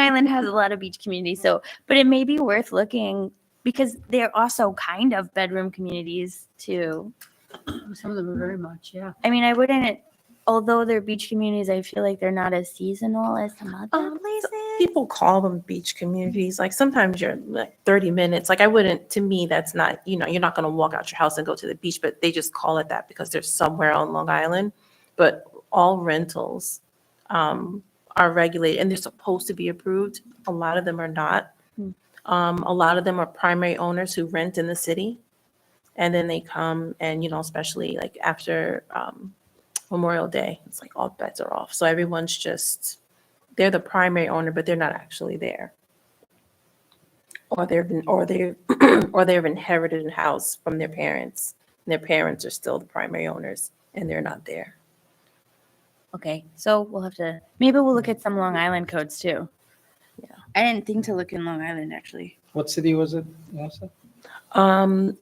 Island has a lot of beach communities, so but it may be worth looking because they're also kind of bedroom communities too. Some of them are very much, yeah. I mean, I wouldn't. Although they're beach communities, I feel like they're not as seasonal as some other Um, places. People call them beach communities. Like sometimes you're like 30 minutes. Like I wouldn't, to me, that's not, you know, you're not going to walk out your house and go to the beach, but they just call it that because they're somewhere on Long Island. But all rentals um, are regulated and they're supposed to be approved. A lot of them are not. Hmm. Um, a lot of them are primary owners who rent in the city. And then they come and, you know, especially like after um, Memorial Day, it's like all bets are off. So everyone's just, they're the primary owner, but they're not actually there. Or they've been, or they, or they've inherited a house from their parents, and their parents are still the primary owners, and they're not there. Okay, so we'll have to maybe we'll look at some Long Island codes too. Yeah. I didn't think to look in Long Island actually. What city was it, Vanessa? Um,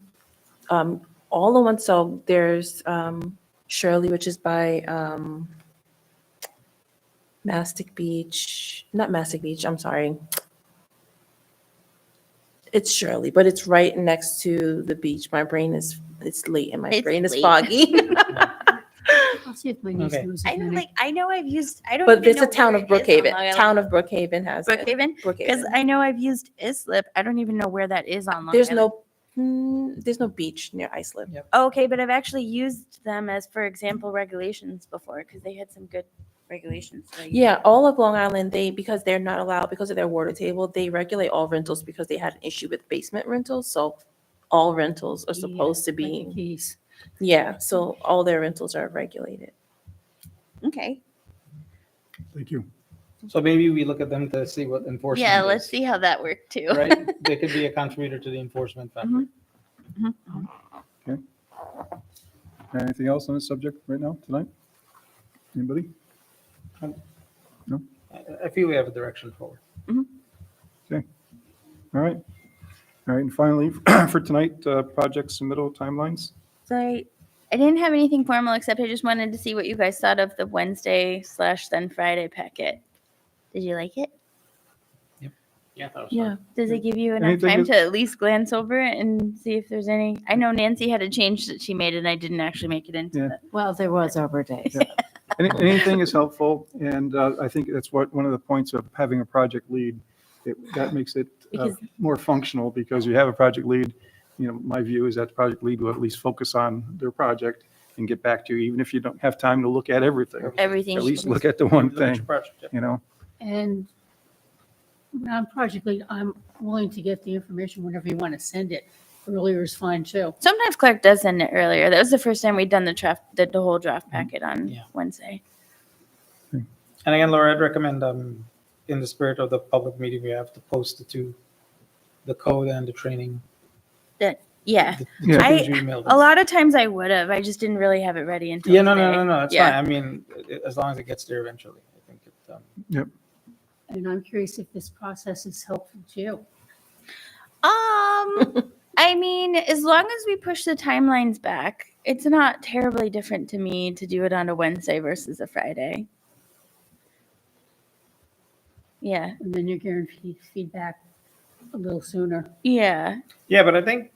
um, all the ones, so there's, um, Shirley, which is by, um, Mastic Beach, not Mastic Beach, I'm sorry. It's Shirley, but it's right next to the beach. My brain is, it's late and my It's brain is late. foggy. I'll see if my niece Okay. knows. I as know, many. like I know I've used. I don't. But even there's know a town where of it is on Brookhaven, Long Island. town of Brookhaven has it. Brookhaven. Because Brookhaven. I know I've used Islip. I don't even know where that is on Long There's Island. no, mm, there's no beach near Islip. Okay, but I've actually used them as, for example, regulations before because they had some good regulations. so you- Yeah, all of Long Island, they, because they're not allowed, because of their water table, they regulate all rentals because they had an issue with basement rentals. So all rentals are Yeah, supposed to I think be, He's, yeah, so all their rentals are regulated. Okay. Thank you. So maybe we look at them to see what enforcement Mm-hmm. Yeah, let's is, see how that worked too. Right? They could be a contributor to the enforcement factor. Mm-hmm. Anything else on this subject right now, tonight? Anybody? I- I feel we have a direction forward. All right. All right, and finally, for tonight, uh, project submittal timelines. So I, I didn't have anything formal except I just wanted to see what you guys thought of the Wednesday slash then Friday packet. Did you like it? Yeah. Yeah. Does it give you enough Anything time is- to at least glance over it and see if there's any? I know Nancy had a change that she made and I didn't actually make it into Yeah. the Well, there was Arbor Day. Yeah. Any- Anything is helpful, and uh, I think that's what, one of the points of having a project lead. It- That makes it uh, Because- more functional because you have a project lead. You know, my view is that the project lead will at least focus on their project and get back to you, even if you don't have time to look at everything. everything. At she least did. look at the one Look at your thing, project, yeah. you know? and on Project Lead, I'm willing to get the information whenever you want to send it. Earlier is fine too. Sometimes Clark does send it earlier. That was the first time we'd done the draft, the, the whole Mm-hmm. draft packet on Yeah. Wednesday. And again, Laura, I'd recommend, um, in the spirit of the public meeting, we have to post the two, the code and the training. Yeah. the- the Yeah. two things I- you emailed A us. lot of times I would have. I just didn't really have it ready until. Yeah, no, no, today. no, no, it's fine. Yeah. I mean, a- as long as it gets there eventually, I think it, um, And I'm curious if this process is helpful to you. Um, I mean, as long as we push the timelines back, it's not terribly different to me to do it on a Wednesday versus a Friday. Yeah, And then you're guaranteed feedback a little sooner. yeah. Yeah, but I think,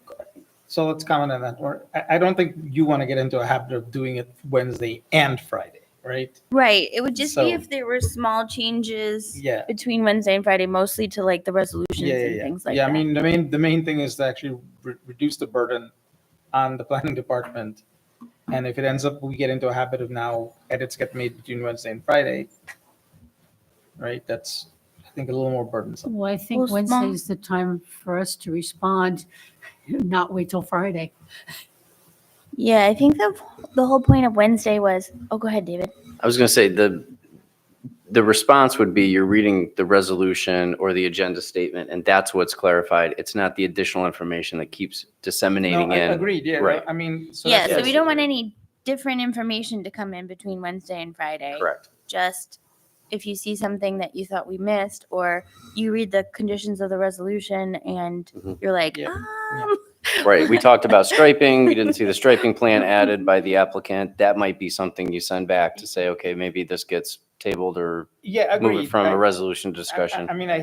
so let's comment on that. Or I, I don't think you want to get into a habit of doing it Wednesday and Friday, right? Right. It would just So- be if there were small changes Yeah. between Wednesday and Friday, mostly to like the resolutions Yeah, yeah, and yeah. things like yeah, that. I mean, the main, the main thing is to actually re- reduce the burden on the planning department. And if it ends up, we get into a habit of now edits get made between Wednesday and Friday, right? That's, I think, a little more burdensome. Well, I Well, think small- Wednesday is the time for us to respond, not wait till Friday. Yeah, I think the the whole point of Wednesday was. Oh, go ahead, David. I was going to say the, the response would be you're reading the resolution or the agenda statement, and that's what's clarified. It's not the additional information that keeps disseminating No, I- in. Agreed, yeah, Right. I mean. so yeah, that's- so we don't want any different information to come in between Wednesday and Friday. Correct. Just if you see something that you thought we missed, or you read the conditions of the resolution and Mm-hmm. Mhm. you're like, Yeah. um, Right. We talked about striping. We didn't see the striping plan added by the applicant. That might be something you send back to say, okay, maybe this gets tabled or Yeah, move agreed. it from I- a resolution I- I- discussion. I mean, I